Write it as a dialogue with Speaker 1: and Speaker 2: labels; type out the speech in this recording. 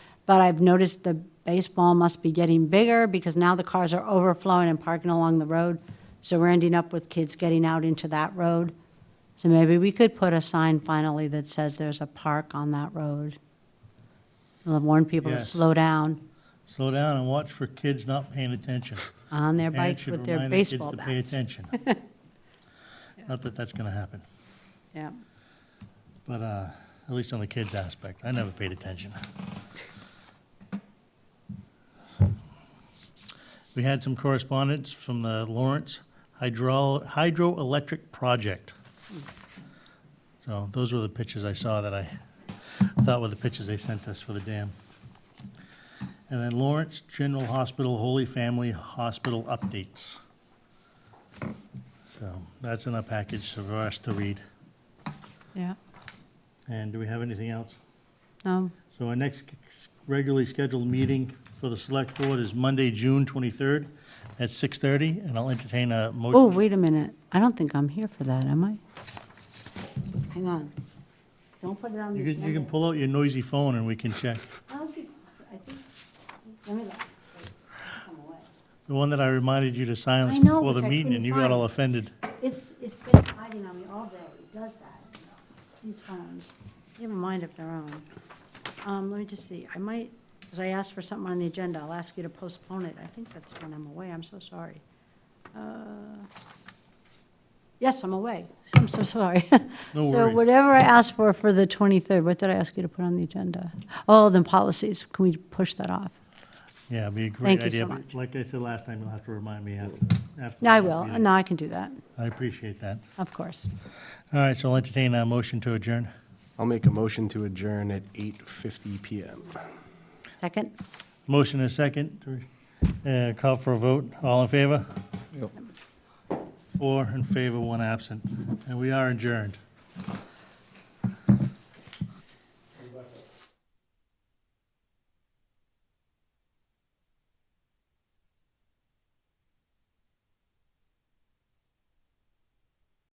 Speaker 1: But I've noticed the baseball must be getting bigger because now the cars are overflowing and parking along the road. So we're ending up with kids getting out into that road. So maybe we could put a sign finally that says there's a park on that road. It'll warn people to
Speaker 2: Yes.
Speaker 1: slow down
Speaker 2: Slow down and watch for kids not paying attention.
Speaker 1: on their
Speaker 2: Parents
Speaker 1: bikes
Speaker 2: should
Speaker 1: with their
Speaker 2: remind the kids
Speaker 1: baseball
Speaker 2: to pay
Speaker 1: bats.
Speaker 2: attention. Not that that's gonna happen,
Speaker 1: Yeah.
Speaker 2: but, uh, at least on the kids aspect, I never paid attention. We had some correspondence from the Lawrence Hydro, Hydroelectric Project. So those were the pictures I saw that I thought were the pictures they sent us for the dam. And then Lawrence General Hospital Holy Family Hospital updates. So that's in our package for us to read.
Speaker 1: Yeah. um.
Speaker 2: And do we have anything else?
Speaker 1: No,
Speaker 2: So our next regularly scheduled meeting for the select board is Monday, June 23rd at 6:30, and I'll entertain a
Speaker 1: Oh,
Speaker 2: motion.
Speaker 1: wait a minute. I don't think I'm here for that, am I? Hang on. Don't put it on the
Speaker 2: You can, you can
Speaker 1: agenda.
Speaker 2: pull out your noisy phone and we can check.
Speaker 1: I don't think- I think- let me look. Come away.
Speaker 2: The one that I reminded you to silence
Speaker 1: I know,
Speaker 2: before the
Speaker 1: which I
Speaker 2: meeting, and
Speaker 1: couldn't
Speaker 2: you got
Speaker 1: find.
Speaker 2: all offended.
Speaker 1: It's, it's been hiding on me all day. It does that. These phones, they have a mind of their own. Um, let me just see. I might, because I asked for something on the agenda. I'll ask you to postpone it. I think that's when I'm away. I'm so sorry. Uh, Yes, I'm away. I'm so sorry.
Speaker 2: No
Speaker 1: So
Speaker 2: worries.
Speaker 1: whatever I asked for for the 23rd, what did I ask you to put on the agenda? Oh, then policies. Can we push that off?
Speaker 2: Yeah, it'd be a
Speaker 1: Thank
Speaker 2: great
Speaker 1: you
Speaker 2: idea.
Speaker 1: so
Speaker 2: but
Speaker 1: much.
Speaker 2: Like I said last time, you'll have to remind me after. after
Speaker 1: No, I
Speaker 2: the
Speaker 1: will.
Speaker 2: meeting.
Speaker 1: No, I can do that,
Speaker 2: I appreciate that.
Speaker 1: of course.
Speaker 2: All right, so I'll entertain a motion to adjourn.
Speaker 3: I'll make a motion to adjourn at 8:50 PM.
Speaker 1: Second?
Speaker 2: Motion and a second. Uh, Call for a vote. All in favor? Four in favor, one absent. And we are adjourned.